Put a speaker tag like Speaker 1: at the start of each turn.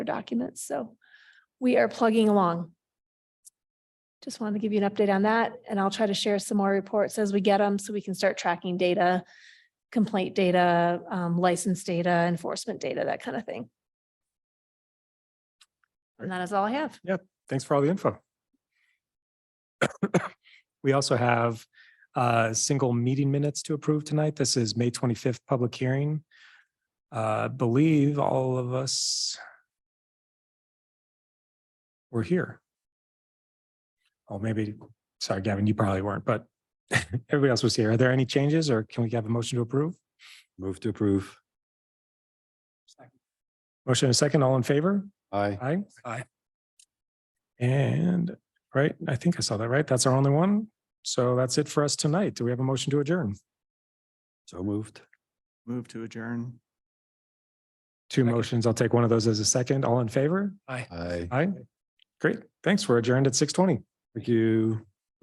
Speaker 1: for documents, so we are plugging along. Just wanted to give you an update on that, and I'll try to share some more reports as we get them, so we can start tracking data, complaint data, um, license data, enforcement data, that kind of thing. And that is all I have.
Speaker 2: Thanks for all the info. We also have uh single meeting minutes to approve tonight. This is May twenty-fifth public hearing. Uh, believe all of us were here. Oh, maybe, sorry, Gavin, you probably weren't, but everybody else was here. Are there any changes or can we have a motion to approve?
Speaker 3: Move to approve.
Speaker 2: Motion and a second, all in favor?
Speaker 3: Aye.
Speaker 2: Aye. Aye. And, right, I think I saw that, right? That's our only one. So that's it for us tonight. Do we have a motion to adjourn?
Speaker 3: So moved.
Speaker 4: Move to adjourn.
Speaker 2: Two motions. I'll take one of those as a second. All in favor?
Speaker 3: Aye.
Speaker 2: Aye. Great. Thanks. We're adjourned at six twenty.
Speaker 3: Thank you.